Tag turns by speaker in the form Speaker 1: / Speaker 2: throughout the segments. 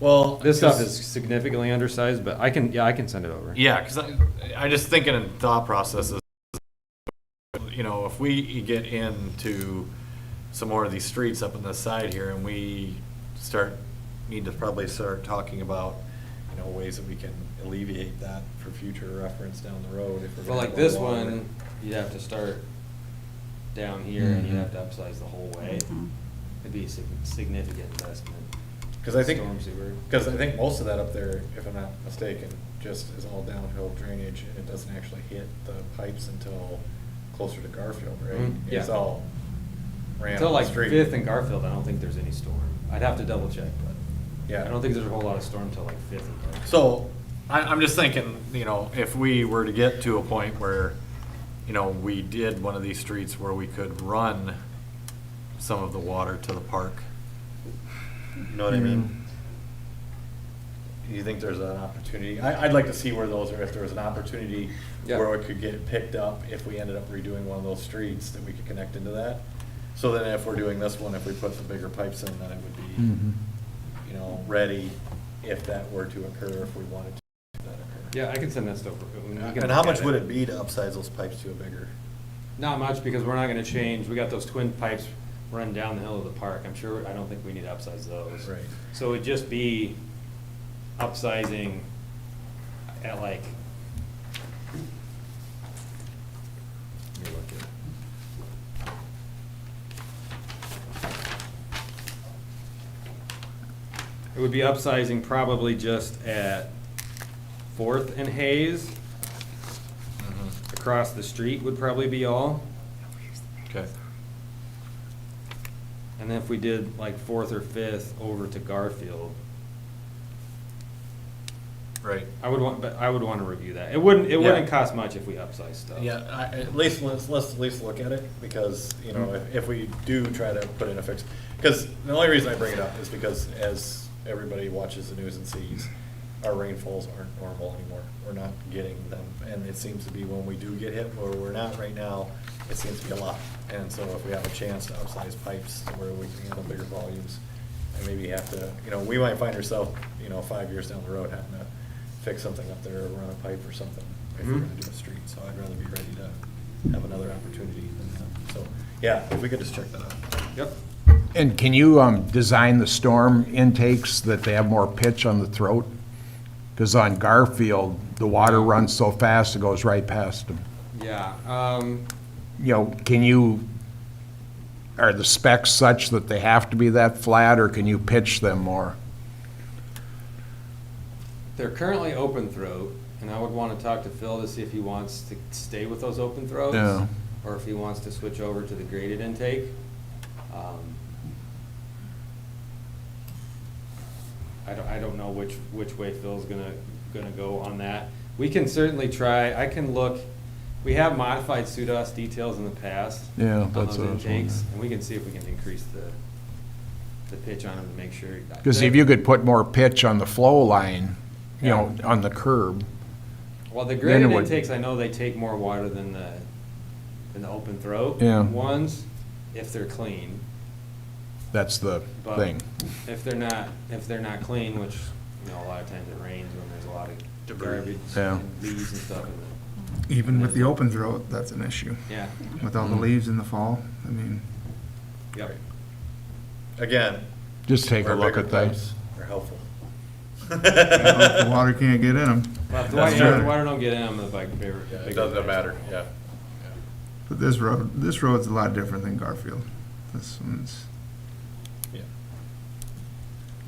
Speaker 1: Well.
Speaker 2: This stuff
Speaker 1: 'cause-
Speaker 2: is significantly undersized, but I can, yeah, I can send it over.
Speaker 3: Yeah, because I, I just thinking in thought processes, you know, if we get into some more of these streets up on the side here and we start, need to probably start talking about, you know, ways that we can alleviate that for future reference down the road if we're.
Speaker 4: Well,
Speaker 3: gonna
Speaker 4: like
Speaker 3: go
Speaker 4: this
Speaker 3: longer.
Speaker 4: one, you'd have to start down here and you'd have to upsize the whole way. It'd be a sig- significant investment.
Speaker 3: Because I think,
Speaker 4: Storm sewer.
Speaker 3: because I think most of that up there, if I'm not mistaken, just is all downhill drainage and it doesn't actually hit the pipes until closer to Garfield, right?
Speaker 4: Mhm,
Speaker 3: It's
Speaker 4: yeah.
Speaker 3: all ran
Speaker 4: Until
Speaker 3: on the
Speaker 4: like
Speaker 3: street.
Speaker 4: Fifth and Garfield, I don't think there's any storm. I'd have to double check, but
Speaker 3: Yeah.
Speaker 4: I don't think there's a whole lot of storm till like Fifth and Garfield.
Speaker 3: So, I, I'm just thinking, you know, if we were to get to a point where, you know, we did one of these streets where we could run some of the water to the park. You know what I mean? You think there's an opportunity? I, I'd like to see where those are, if there was an opportunity
Speaker 2: Yeah.
Speaker 3: where it could get picked up if we ended up redoing one of those streets that we could connect into that. So then if we're doing this one, if we put the bigger pipes in, then it would be, you know, ready if that were to occur, if we wanted to. if that occurred.
Speaker 2: Yeah, I can send that stuff. over. We can
Speaker 3: And how
Speaker 2: look at
Speaker 3: much would it be to upsize those pipes to a bigger?
Speaker 4: Not much, because we're not gonna change, we got those twin pipes running down the hill of the park, I'm sure, I don't think we need to upsize those.
Speaker 3: Right.
Speaker 4: So it'd just be upsizing at like. let me look it. It would be upsizing probably just at Fourth and Hayes,
Speaker 2: Mm-hmm.
Speaker 4: across the street would probably be all.
Speaker 3: Okay.
Speaker 4: And then if we did like fourth or fifth over to Garfield,
Speaker 3: Right.
Speaker 4: I would want, but I would want to review that. It wouldn't, it
Speaker 3: Yeah.
Speaker 4: wouldn't cost much if we upsize stuff.
Speaker 3: Yeah, I, at least, let's, let's at least look at it, because, you know, if, if we do try to put in a fix, because the only reason I bring it up is because as everybody watches the news and sees, our rainfalls aren't normal anymore, we're not getting them, and it seems to be when we do get hit, or we're not right now, it seems to be a lot, and so if we have a chance to upsize pipes to where we can handle bigger volumes, and maybe have to, you know, we might find ourselves, you know, five years down the road having to fix something up there, or run a pipe or something, if we're gonna
Speaker 4: Mhm.
Speaker 3: do a street, so I'd rather be ready to have another opportunity than that. So, yeah, if we could just check that out.
Speaker 4: Yep.
Speaker 5: And can you um, design the storm intakes that they have more pitch on the throat? Because on Garfield, the water runs so fast, it goes right past them.
Speaker 4: Yeah, um,
Speaker 5: You know, can you, are the specs such that they have to be that flat, or can you pitch them more?
Speaker 4: they're currently open throat, and I would want to talk to Phil to see if he wants to stay with those open throats.
Speaker 5: Yeah.
Speaker 4: Or if he wants to switch over to the graded intake. Um, I don't, I don't know which, which way Phil's gonna, gonna go on that. We can certainly try, I can look, we have modified SUDAS details in the past.
Speaker 5: Yeah,
Speaker 4: on
Speaker 5: that's
Speaker 4: those
Speaker 5: what I was
Speaker 4: intakes,
Speaker 5: wondering.
Speaker 4: And we can see if we can increase the, the pitch on them to make sure.
Speaker 5: Because if you could put more pitch on the flow line, you know, on the curb.
Speaker 4: Well, the
Speaker 5: Then it
Speaker 4: graded
Speaker 5: would-
Speaker 4: intakes, I know they take more water than the, than the open throat
Speaker 5: Yeah.
Speaker 4: ones, if they're clean.
Speaker 5: That's the
Speaker 4: But
Speaker 5: thing.
Speaker 4: If they're not, if they're not clean, which, you know, a lot of times it rains when there's a lot of garbage
Speaker 5: Yeah.
Speaker 4: and leaves and stuff in it.
Speaker 6: Even with the open throat, that's an issue.
Speaker 4: Yeah,
Speaker 6: With all the
Speaker 5: Mm.
Speaker 6: leaves in the fall, I mean,
Speaker 4: yep.
Speaker 3: Again.
Speaker 5: Just take a
Speaker 3: where
Speaker 5: look
Speaker 3: bigger
Speaker 5: at things.
Speaker 3: pipes Are helpful.
Speaker 6: you know, if the water can't get in them.
Speaker 4: Well, if the
Speaker 3: That's
Speaker 4: water, if
Speaker 6: true.
Speaker 4: the water don't get in, I'm the big, bigger.
Speaker 3: Yeah, It
Speaker 4: bigger
Speaker 3: doesn't
Speaker 4: pipes.
Speaker 3: matter, yeah.
Speaker 6: But this road, this road's a lot different than Garfield. This one's,
Speaker 3: Yeah.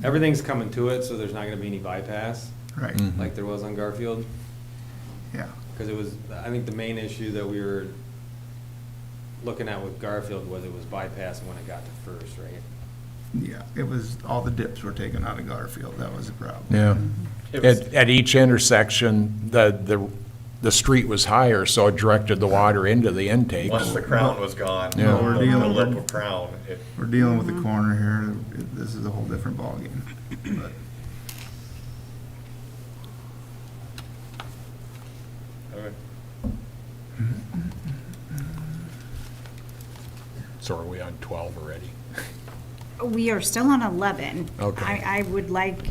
Speaker 4: Everything's coming to it, so there's not gonna be any bypass,
Speaker 6: right,
Speaker 5: Mm.
Speaker 4: like there was on Garfield.
Speaker 6: yeah.
Speaker 4: Because it was, I think the main issue that we were looking at with Garfield was it was bypassing when it got to first, right?
Speaker 6: Yeah, it was, all the dips were taken out of Garfield, that was the problem.
Speaker 5: Yeah.
Speaker 3: It was-
Speaker 5: At, at each intersection, the, the, the street was higher, so it directed the water into the intake.
Speaker 3: Once the crown was gone, the
Speaker 5: Yeah.
Speaker 6: We're dealing
Speaker 3: lip
Speaker 6: with-
Speaker 3: of crown, it,
Speaker 6: We're dealing with the corner here, It- this is a whole different ballgame. But
Speaker 3: okay.
Speaker 5: So are we on twelve already?
Speaker 7: We are still on 11.
Speaker 5: Okay.
Speaker 7: I, I would like